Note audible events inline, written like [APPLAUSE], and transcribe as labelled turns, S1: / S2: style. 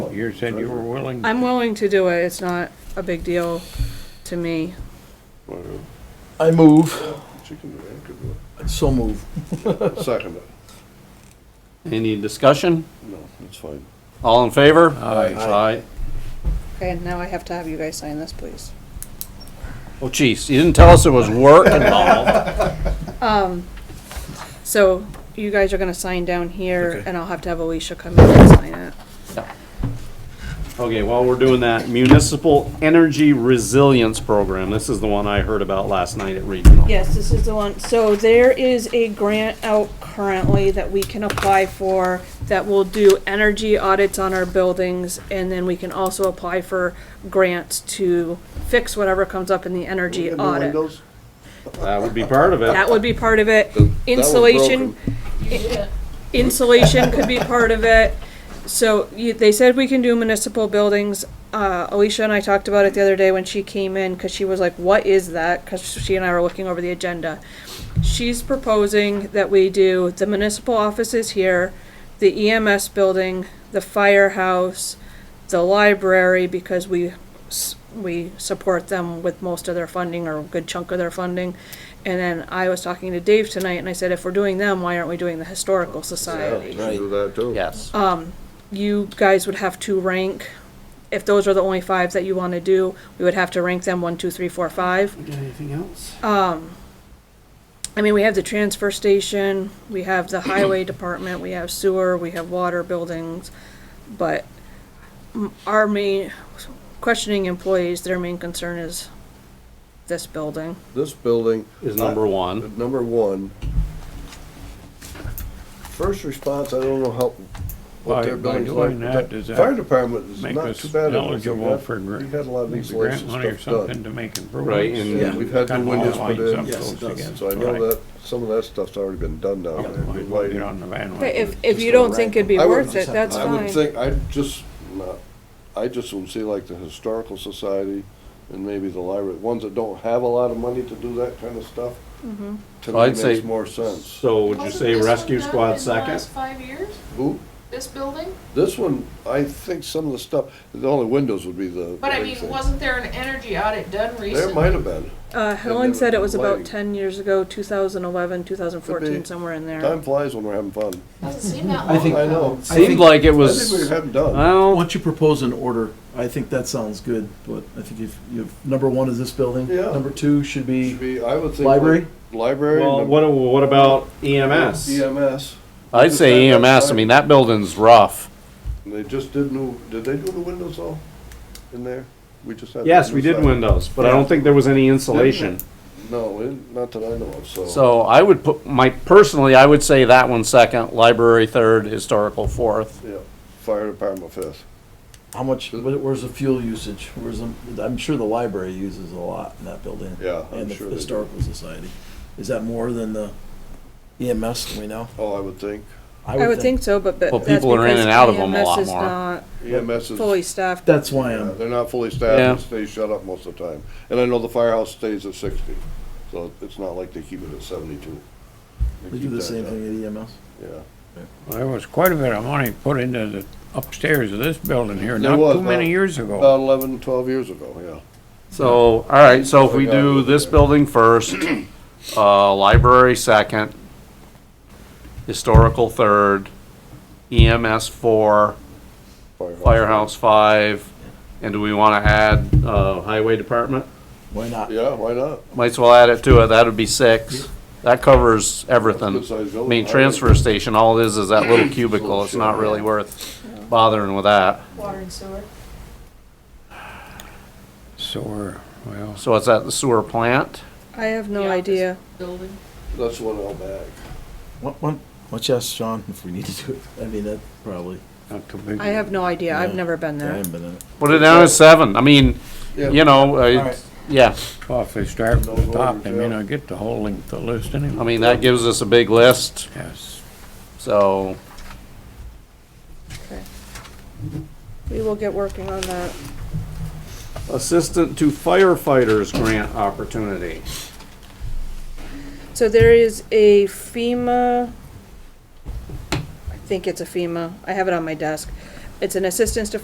S1: You said you were willing.
S2: I'm willing to do it, it's not a big deal to me.
S3: Well,
S4: I move,
S3: she can do it, I could do
S4: so move.
S3: it. Second it.
S5: Any discussion?
S3: No, that's fine.
S5: All in favor?
S4: Aye.
S5: Aye.
S2: Okay, now I have to have you guys sign this, please.
S5: Oh, jeez, you didn't tell us there was work involved.
S2: [LAUGHS] Um, So you guys are gonna sign down here,
S5: Okay.
S2: and I'll have to have Alicia come in and sign it.
S5: Okay, while we're doing that, Municipal Energy Resilience Program, this is the one I heard about last night at Regional.
S2: Yes, this is the one. So there is a grant out currently that we can apply for that will do energy audits on our buildings, and then we can also apply for grants to fix whatever comes up in the energy
S3: Get new
S2: audit.
S3: windows?
S5: That would be part of it.
S2: That would be part of it.
S3: was
S2: Insulation. Insulation could be part of it. So you, they said we can do municipal buildings. Uh, Alicia and I talked about it the other day when she came in, cause she was like, what is that? Cause she and I were looking over the agenda. She's proposing that we do the municipal offices here, the EMS building, the firehouse, the library, because we, s- we support them with most of their funding or a good chunk of their funding. And then I was talking to Dave tonight and I said, if we're doing them, why aren't we doing the historical
S3: You
S5: Oh,
S2: society?
S3: can do that too.
S5: Yes.
S2: You guys would have to rank, if those are the only five that you wanna do, we would have to rank them one, two, three, four, five. Um,
S5: Anything else?
S2: I mean, we have the transfer station, we have the highway department, we have sewer, we have water buildings, but m- our main, questioning employees, their main concern is this building.
S3: This building, uh,
S5: Is number one.
S3: number one. First response, I don't know how,
S1: By-
S3: what their
S1: by
S3: building's
S1: doing
S3: like.
S1: that,
S3: but
S1: does
S3: the
S1: that
S3: Fire department is
S1: Make
S3: not
S1: us
S3: too bad. at it.
S1: eligible for grant.
S3: We've had a lot of
S1: maybe
S3: insulation
S1: Grant money or
S3: stuff
S1: something
S3: done.
S1: to make
S5: Right,
S1: improvements.
S5: and-
S3: Yeah, we've had
S1: Cut
S3: new
S1: all
S3: windows
S1: the
S3: put
S1: lights
S3: in.
S1: up
S4: Yes, it
S1: close
S4: does.
S1: together.
S3: So I know
S1: Right.
S3: that, some of that stuff's already been done down there.
S1: Might as
S3: Good
S1: well get
S3: lighting.
S1: on the
S2: But
S1: bandwagon.
S2: if, if you don't think it'd be
S3: I would-
S2: worth it, that's
S3: I would
S2: fine.
S3: think, I just, not- I just would see like the Historical Society and maybe the library, ones that don't have a lot of money to do that kind of stuff.
S2: Mm-hmm.
S3: To
S5: I'd
S3: me
S5: say-
S3: makes more sense.
S5: So would you say rescue squad second?
S6: Last five years,
S3: Who,
S6: this building?
S3: this one, I think some of the stuff, the only windows would be the.
S6: But I mean, wasn't there an energy audit done
S3: There
S6: recently?
S3: might have been.
S2: Uh, Helen said it was about
S3: Lighting.
S2: ten years ago, two thousand eleven, two thousand
S3: Could
S2: fourteen,
S3: be.
S2: somewhere in there.
S3: Time flies when we're having fun.
S6: Doesn't seem that
S4: I
S6: long
S4: think-
S3: I
S6: ago.
S3: know.
S4: I think-
S5: Seemed like it
S3: I think we
S5: was,
S3: haven't done.
S5: well,
S4: Once you propose an order, I think that sounds good, but I think if, you number one is this building.
S3: Yeah.
S4: Number two should
S3: Should
S4: be,
S3: be, I would think.
S4: Library?
S3: like Library.
S5: well,
S3: num-
S5: what, what about E EMS?
S3: EMS.
S5: I'd say EMS, I mean, that building's rough.
S3: And They just did new, did they do the windows all in there? We just had.
S5: Yes,
S3: the
S5: we
S3: new
S5: did
S3: side.
S5: windows, but I don't think there was any insulation.
S3: No, we didn't- not that I know of, so.
S5: So I would put, my, personally, I would say that one second, library third, historical fourth.
S3: Yeah, fire department fifth.
S4: how much, wh- where's the fuel usage? Where's, the- I'm sure the library uses a lot in that building.
S3: Yeah, I'm
S4: And the
S3: sure they do.
S4: historical society. Is that more than the EMS, do we know?
S3: Oh, I would think.
S2: I would think so, but, but
S5: Well,
S2: that's
S5: people are in
S2: because
S5: and out of 'em a
S2: EMS
S5: lot
S2: is
S5: more.
S2: not
S3: EMS is.
S2: Fully staffed.
S4: That's why
S3: Yeah,
S4: I'm,
S3: They're not fully
S5: Yeah.
S3: staffed, they stay shut up most of the time. And I know the firehouse stays at sixty, so it's not like they keep it at seventy-two.
S4: they do
S3: keep
S4: the
S3: that
S4: same
S3: up,
S4: thing at E EMS.
S3: Yeah.
S1: There was quite a bit of money put into the upstairs of this building here,
S3: There
S1: not
S3: was,
S1: too many
S3: uh,
S1: years
S3: About
S1: ago.
S3: eleven, twelve years ago, yeah.
S5: So, all right, so if we
S3: Yeah.
S5: do this building first, uh, library second, historical third, EMS four, firehouse five, and do we wanna add, uh, highway department?
S4: Why not?
S3: Yeah, why not?
S5: Might as well add it to it, that'd be six. That covers everything.
S3: Good-sized
S5: I
S3: building.
S5: mean, transfer station, all it is is that little cubicle, it's not really worth bothering with that.
S6: Water and sewer.
S1: So we're, well,
S5: So it's at the sewer plant?
S2: I have no
S6: The office
S2: idea.
S6: Building.
S3: That's one out back.
S4: What, what, let's ask Sean if we need to do it. I mean, that probably,
S1: not too big.
S2: I have no idea. I've
S4: Yeah.
S2: never been
S4: I
S2: there.
S4: haven't been in it.
S5: Put it down as seven, I mean, you know, uh,
S4: Alright.
S5: yeah,
S1: Well, if they start from the
S3: No
S1: top,
S3: order,
S1: they may
S3: Joe.
S1: not get the whole length of the list
S5: I
S1: anyway.
S5: mean, that gives us a big list,
S1: Yes.
S5: so,
S2: We will get working on that.
S5: assistant to firefighters grant opportunity.
S2: So there is a FEMA, I think it's a FEMA, I have it on my desk. It's an assistance to